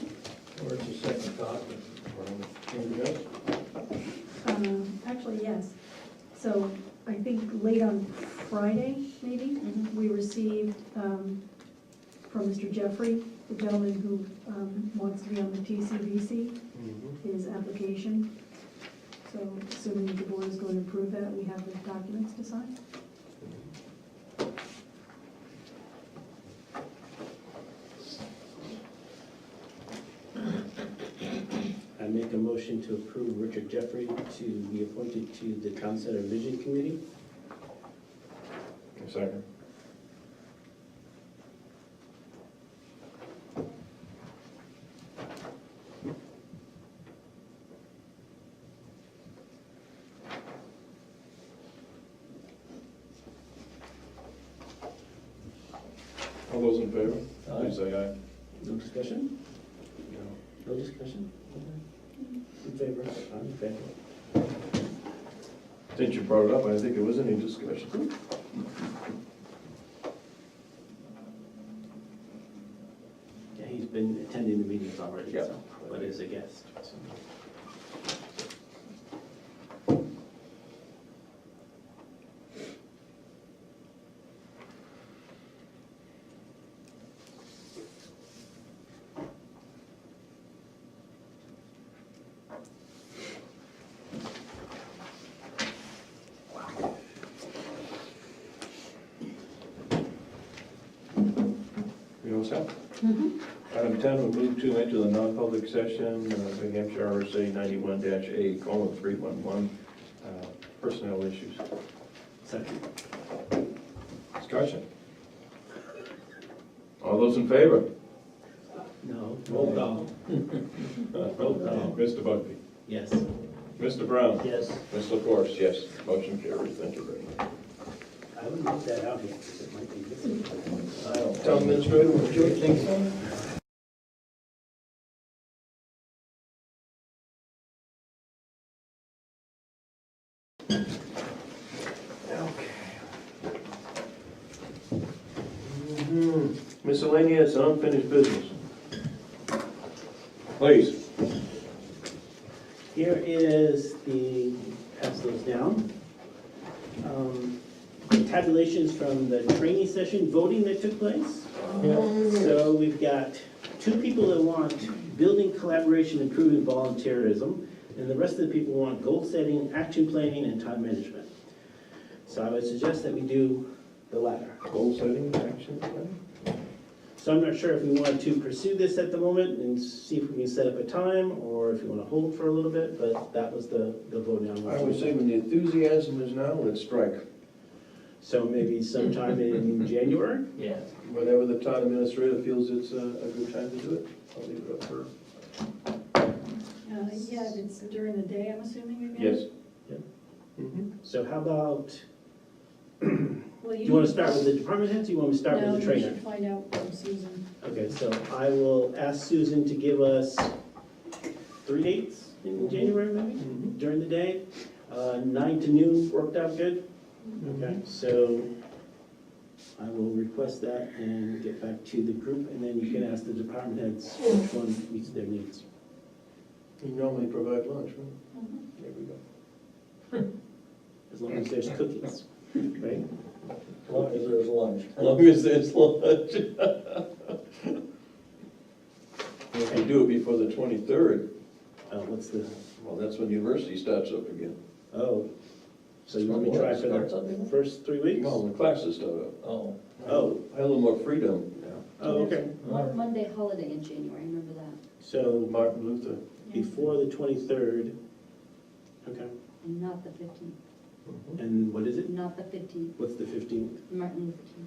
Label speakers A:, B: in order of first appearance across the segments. A: Um, So I think late on Friday, maybe,
B: Mhm.
A: we received um, from Mr. Jeffrey, the gentleman who um, wants to be on the PCVC,
C: Mm-hmm.
A: his application. So assuming the board is going to approve that, we have the documents to sign.
D: I make a motion to approve Richard Jeffrey to be appointed to the Town Center Vision Committee.
C: Second. All those in favor, please say aye.
D: No discussion? No discussion? In favor? I'm in favor.
C: Since you brought it up, I think it was any discussion.
D: Yeah, he's been attending the meetings already,
C: Yeah.
D: so, but is a guest. so.
C: You all set? Item 10, we move to enter the non-public session, uh, New Hampshire RSA 91-A, colon, 311, uh, personnel issues.
D: Second.
C: Discussion. All those in favor?
D: No. Roll call. Roll call.
C: Mr. Bugby?
D: Yes.
C: Mr. Brown?
D: Yes.
C: Mr. Force, yes. Motion carries, thank you very much.
D: I would not leave that out yet, because it might be missing.
C: Town administrator, would you think so? Okay. Miscellaneous unfinished business. Please.
D: Here is the, pass those down. Um, Tabulations from the training session voting that took place. So we've got two people that want building collaboration, improving volunteerism, and the rest of the people want goal setting, action planning, and time management. So I would suggest that we do the latter.
C: Goal setting, action plan?
D: So I'm not sure if we want to pursue this at the moment and see if we can set up a time, or if you want to hold for a little bit, but that was the, the voting on.
C: I would say when the enthusiasm is now, let's strike.
D: So maybe sometime in January?
E: Yeah.
C: Whenever the town administrator feels it's a, a good time to do it, I'll leave it up for.
A: Uh, Yeah, it's during the day, I'm assuming again?
C: Mhm.
D: So how about,
A: Well,
D: do you want to start with the department heads, or you want me to start with the trainer?
A: find out from Susan.
D: Okay, so I will ask Susan to give us three dates in January, maybe,
C: Mhm.
D: during the day. Uh, Nine to noon worked out good.
C: Mm-hmm.
D: Okay, so I will request that and get back to the group, and then you can ask the department heads which one meets their needs.
C: You normally provide lunch, right?
A: Mm-hmm.
C: There we go.
D: As long as there's cookies, right?
E: As long as there's lunch.
C: As long as there's lunch. If you do it before the twenty-third,
D: Uh, What's the,
C: well, that's when university starts up again.
D: oh, so you want me to try for the first three weeks?
C: Well, the classes start up.
E: Oh,
D: Oh.
C: I have a little more freedom now.
D: Oh, okay,
F: One Monday holiday in January, remember that?
D: so
C: Martin Luther.
D: before the 23rd, okay,
F: And not the fifteenth,
D: and what is it?
F: not the fifteenth,
D: What's the 15th?
F: Martin Luther King.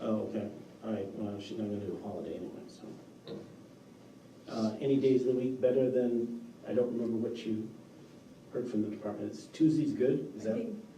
D: Oh, okay, all right, well, she's not gonna do a holiday anyway, so. Uh, Any days of the week better than, I don't remember what you heard from the department, it's Tuesday's good, is
A: I
D: that?
A: think